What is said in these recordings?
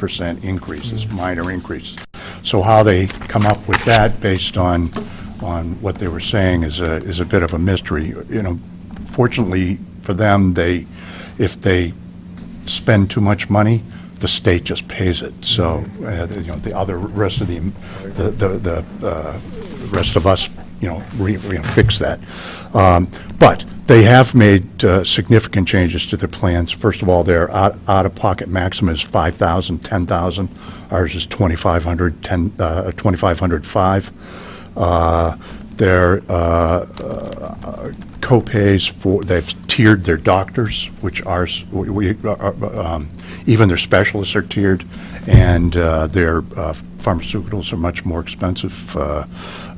percent increases, minor increases. So how they come up with that based on, on what they were saying is a, is a bit of a mystery. You know, fortunately for them, they, if they spend too much money, the state just pays it. So, uh, you know, the other, rest of the, the, the, the uh, rest of us, you know, re, re- fix that. Um, But they have made uh, significant changes to their plans. First of all, their out- out-of-pocket maximum is 5,000, 10,000. Ours is 2,500, 10, uh, 2,505. Uh, Their uh, co-pays for, they've tiered their doctors, which ours, we- we, uh, uh, um, even their specialists are tiered, and uh, their uh, pharmaceuticals are much more expensive uh,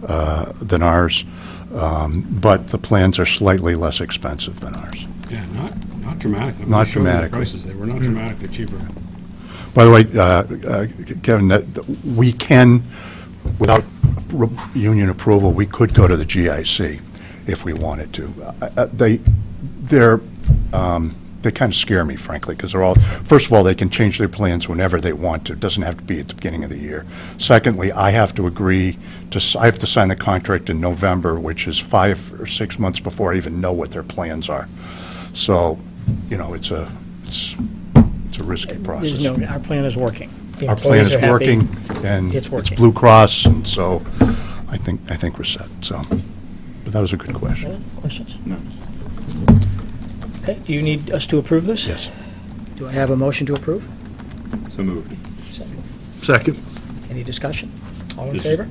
uh, than ours, Um, but the plans are slightly less expensive than ours. Yeah, not, not dramatically. Not We showed you dramatically. the Hmm. Prices, they were not dramatically cheaper. By the way, uh, uh, Kevin, that- we can, without r- union approval, we could go to the GIC if we wanted to. Uh, uh, They, they're, um, they kind of scare me frankly, because they're all, first of all, they can change their plans whenever they want to. It doesn't have to be at the beginning of the year. Secondly, I have to agree to, s- I have to sign the contract in November, which is five or six months before I even know what their plans are. So, you know, it's a, it's, it's a risky process. There's no, our plan is working. The Our plan employees is are happy. working, and It's it's working. Blue Cross, and so I think, I think we're set, so. But that was a good question. Questions? No. Okay, do you need us to approve this? Yes. Do I have a motion to approve? So moved. Second. Any discussion? All in This- favor?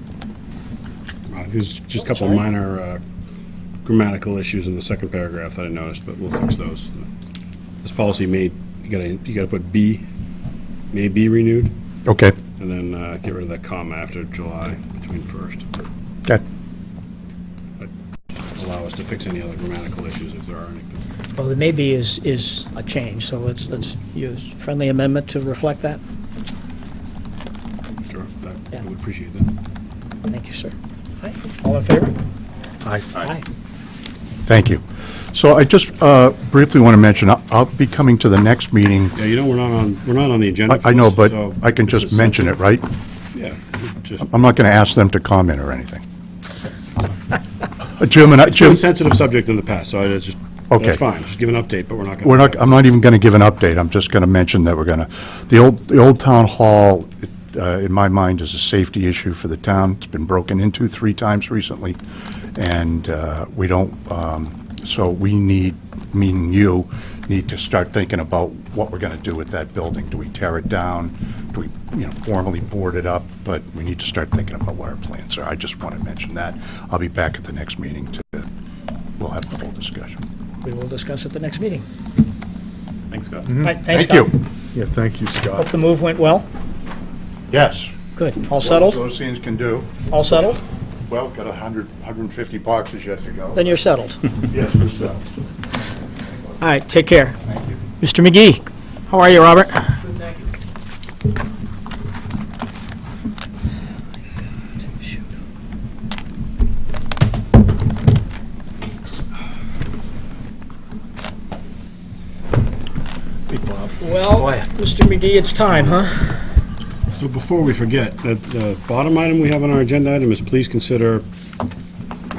Uh, There's just a couple Sorry? minor uh, grammatical issues in the second paragraph that I noticed, but we'll fix those. This policy may, you gotta, you gotta put B, may be renewed, Okay, and then uh, get rid of that comma after July between first. okay. Allow us to fix any other grammatical issues if there are any. Well, the maybe is, is a change, so let's, let's use friendly amendment to reflect that. Sure, that- I Yeah. would appreciate that. Thank you, sir. Aye. All in favor? Aye. Aye. Thank you. So I just uh, briefly want to mention, I'll- I'll be coming to the next meeting. Yeah, you know, we're not on, we're not on the agenda I for I know, this, but so I can it's just a- mention it, right? Yeah, just, I'm not going to ask them to comment or anything. Uh, Jim and I, it's been Jim, a sensitive subject in the past, so I just, Okay. that's fine, just give an update, but we're not gonna. We're not, I'm not even going to give an update, I'm just going to mention that we're going to, the old, the old town hall, uh, in my mind, is a safety issue for the town. It's been broken into three times recently, and uh, we don't, um, so we need, meaning you, need to start thinking about what we're going to do with that building. Do we tear it down? Do we, you know, formally board it up? But we need to start thinking about what our plans are. I just want to mention that. I'll be back at the next meeting to, we'll have the whole discussion. We will discuss at the next meeting. Thanks, Scott. All right, thanks, Mm-hmm. Thank Scott. you. Yeah, thank you, Hope Scott. the move went well. Yes. Good. All What settled? those things can do. All settled? Well, got 100, 150 boxes yet to go. Then you're settled. Yes, we're set. All right, take care. Thank you. Mr. McGee, how are you, Robert? Well, Mr. McGee, it's time, huh? So before we forget, the, the bottom item we have on our agenda item is please consider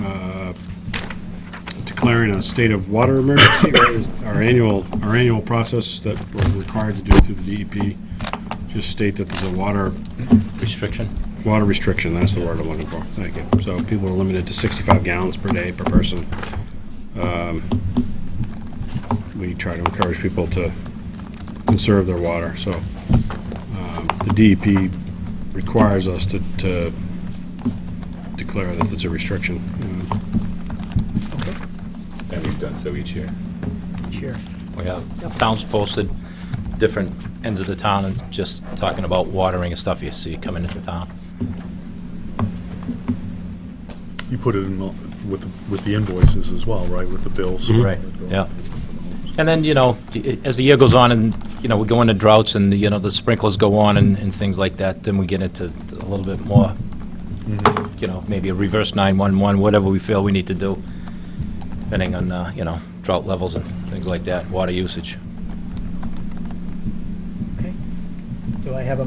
uh, declaring a state of water emergency, our annual, our annual process that we're required to do through the DEP. Just state that there's a water, Restriction? water restriction, that's the word I'm looking for, thank you. So people are limited to 65 gallons per day per person. Um, We try to encourage people to conserve their water, so the DEP requires us to, to declare that it's a restriction. Uh, And we've done so each year. Sure. We have towns posted, different ends of the town, and just talking about watering and stuff you see coming into town. You put it in the- with, the- with the invoices as well, right, with the bills? Mm-hmm. Right, yeah. And then, you know, i- as the year goes on, and, you know, we go into droughts, and, you know, the sprinklers go on and, and things like that, then we get into a little bit more, you know, maybe a reverse 911, whatever we feel we need to do, depending on, uh, you know, drought levels and things like that, water usage. Okay. Do Do I have a